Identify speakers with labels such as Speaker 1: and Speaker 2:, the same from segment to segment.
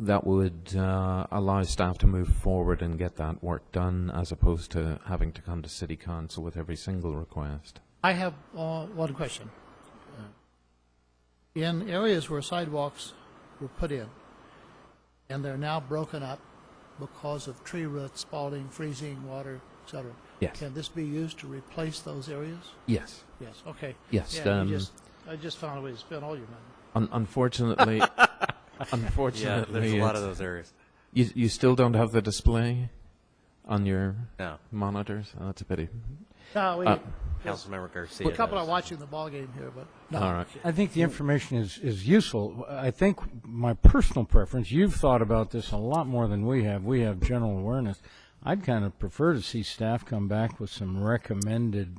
Speaker 1: that would uh, allow staff to move forward and get that work done, as opposed to having to come to city council with every single request.
Speaker 2: I have uh, one question. Uh, In areas where sidewalks were put in, and they're now broken up because of tree roots, spalling, freezing, water, et cetera,
Speaker 1: Yes.
Speaker 2: can this be used to replace those areas?
Speaker 1: Yes.
Speaker 2: Yes, okay.
Speaker 1: Yes,
Speaker 2: Yeah, you
Speaker 1: um,
Speaker 2: just- I just found a way to spend all your money.
Speaker 1: Un- unfortunately,
Speaker 3: Yeah,
Speaker 1: unfortunately,
Speaker 3: there's a lot of
Speaker 1: it's-
Speaker 3: those areas.
Speaker 1: You, you still don't have the display on your
Speaker 3: No,
Speaker 1: monitors. Oh, that's a pity.
Speaker 2: No,
Speaker 1: Uh,
Speaker 2: we,
Speaker 3: Councilmember Garcia.
Speaker 2: a couple
Speaker 3: does.
Speaker 2: are watching the ballgame here, but no.
Speaker 1: All right.
Speaker 4: I think the information is, is useful. I think my personal preference, you've thought about this a lot more than we have. We have general awareness. I'd kind of prefer to see staff come back with some recommended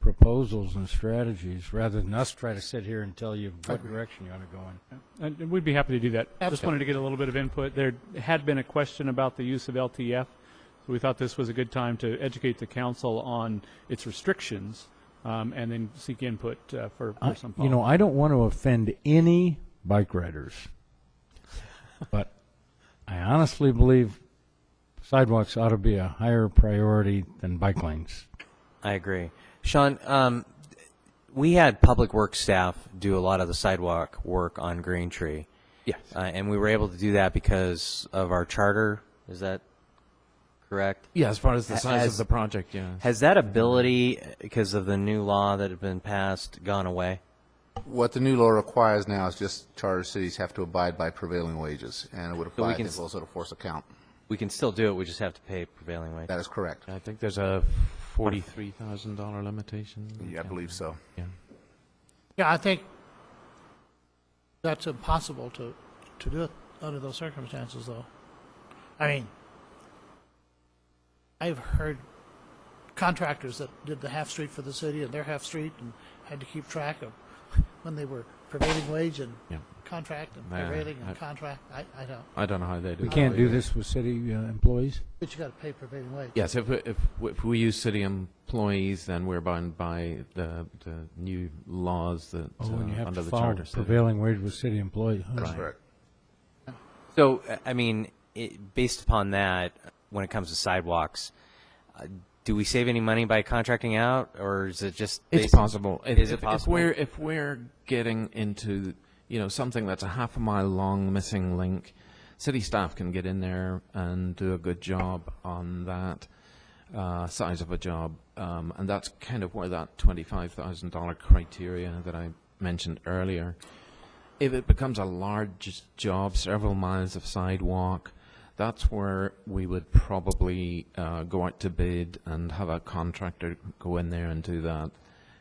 Speaker 4: proposals and strategies rather than us try to sit here and tell you what direction you ought to go in.
Speaker 5: And and Uh, we'd be happy to do that. Just wanted to get a little bit of input. There had been a question about the use of LTF, so we thought this was a good time to educate the council on its restrictions, um, and then seek input uh, for for some
Speaker 4: You know,
Speaker 5: follow-up.
Speaker 4: I don't want to offend any bike riders, but I honestly believe sidewalks ought to be a higher priority than bike lanes.
Speaker 3: I agree. Sean, um, we had public works staff do a lot of the sidewalk work on Green Tree.
Speaker 1: Yes.
Speaker 3: Uh, and we were able to do that because of our charter. Is that correct?
Speaker 1: Yeah, as far as the size of
Speaker 3: As-
Speaker 1: the project, yeah.
Speaker 3: Has that ability, uh, because of the new law that had been passed, gone away?
Speaker 6: What the new law requires now is just charter cities have to abide by prevailing wages, and it would apply, I
Speaker 3: can
Speaker 6: think,
Speaker 3: s-
Speaker 6: also to force account.
Speaker 3: We can still do it. We just have to pay prevailing wage.
Speaker 6: That is correct.
Speaker 1: I think there's a forty-three thousand dollar limitation.
Speaker 6: Yeah, I believe so.
Speaker 1: Yeah.
Speaker 2: Yeah, I think that's impossible to, to do it under those circumstances, though. I mean, I've heard contractors that did the half street for the city and their half street and had to keep track of when they were prevailing wage and
Speaker 1: Yeah.
Speaker 2: contract and
Speaker 1: Yeah,
Speaker 2: prevailing and
Speaker 1: I-
Speaker 2: contract. I, I don't.
Speaker 1: I don't know how they do.
Speaker 4: We
Speaker 1: that.
Speaker 4: can't do this with city uh, employees?
Speaker 2: But you got to pay prevailing wage.
Speaker 1: Yes, if, if, if we use city employees, then we're bound by the, the new laws that,
Speaker 4: Oh, and you
Speaker 1: uh,
Speaker 4: have
Speaker 1: under
Speaker 4: to
Speaker 1: the
Speaker 4: follow
Speaker 1: charter. city.
Speaker 4: prevailing wage with city employees. huh?
Speaker 6: That's correct.
Speaker 3: So, uh, I mean, it, based upon that, when it comes to sidewalks, uh, do we save any money by contracting out, or is it just?
Speaker 1: It's
Speaker 3: basi-
Speaker 1: possible. If-
Speaker 3: Is
Speaker 1: if-
Speaker 3: it possible?
Speaker 1: If we're, if we're getting into, you know, something that's a half a mile long missing link, city staff can get in there and do a good job on that uh, size of a job. Um, and that's kind of where that $25,000 criteria that I mentioned earlier, if it becomes a large job, several miles of sidewalk, that's where we would probably uh, go out to bid and have a contractor go in there and do that.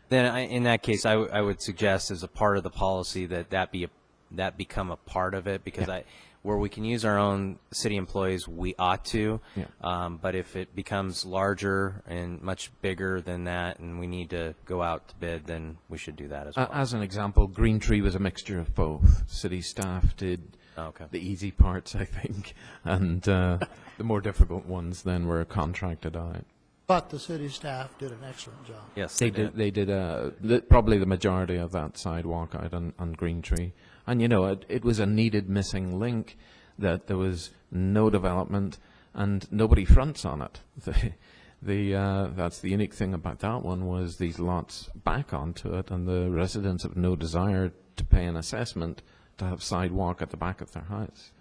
Speaker 3: Then, I, in that case, I, w- I would suggest as a part of the policy that that be a, that become a part of it because I, where we can use our own city employees, we ought to.
Speaker 1: Yeah.
Speaker 3: Um, but if it becomes larger and much bigger than that, and we need to go out to bid, then we should do that as well.
Speaker 1: A- Uh, As an example, Green Tree was a mixture of both. City staff did
Speaker 3: Oh, Okay.
Speaker 1: the easy parts, I think, and uh, the more difficult ones then were contracted out.
Speaker 2: But the city staff did an excellent job.
Speaker 3: yes,
Speaker 1: They
Speaker 3: I
Speaker 1: did. They did uh, the, probably the majority of that sidewalk out on, on Green Tree, and you know it, it was a needed missing link that there was no development and nobody fronts on it. The, the uh, that's the unique thing about that one was these lots back onto it, and the residents have no desire to pay an assessment to have sidewalk at the back of their house.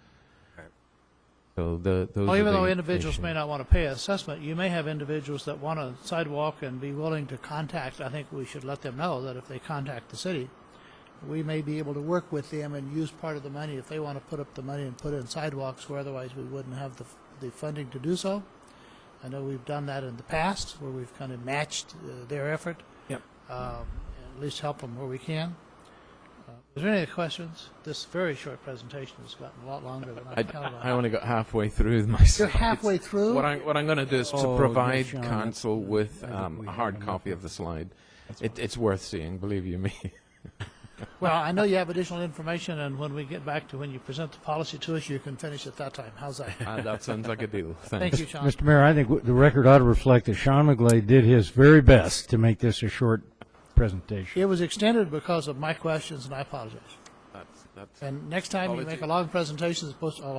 Speaker 3: Right.
Speaker 1: So the those.
Speaker 2: Well,
Speaker 1: are
Speaker 2: Oh, even though
Speaker 1: the
Speaker 2: individuals may
Speaker 1: issues.
Speaker 2: not want to pay assessment, you may have individuals that want a sidewalk and be willing to contact, I think we should let them know that if they contact the city, we may be able to work with them and use part of the money if they want to put up the money and put in sidewalks where otherwise we wouldn't have the, the funding to do so. I know we've done that in the past where we've kind of matched uh, their effort.
Speaker 1: Yep.
Speaker 2: Um, At least help them where we can. Uh, Is there any other questions? This very short presentation has gotten a lot longer than I
Speaker 1: I,
Speaker 2: counted on.
Speaker 1: I only got halfway through myself.
Speaker 2: You're halfway through?
Speaker 1: What I'm, what I'm going to do is to
Speaker 4: Oh,
Speaker 1: provide
Speaker 4: Sean, that's-
Speaker 1: council with
Speaker 4: I think
Speaker 1: um,
Speaker 4: we
Speaker 1: a
Speaker 4: have
Speaker 1: hard
Speaker 4: enough
Speaker 1: copy of the slide. It, it's worth seeing, believe you me.
Speaker 2: Well, I know you have additional information, and when we get back to when you present the policy to us, you can finish at that time. How's that?
Speaker 1: Uh, that sounds like a deal. Thanks.
Speaker 2: Thank you, Sean.
Speaker 4: Mr. Mayor, I think w- the record ought to reflect that Sean McGlade did his very best to make this a short presentation.
Speaker 2: It was extended because of my questions, and I apologize.
Speaker 1: That's- that's-
Speaker 2: Oh, And next time you make a long presentation, it's supposed to,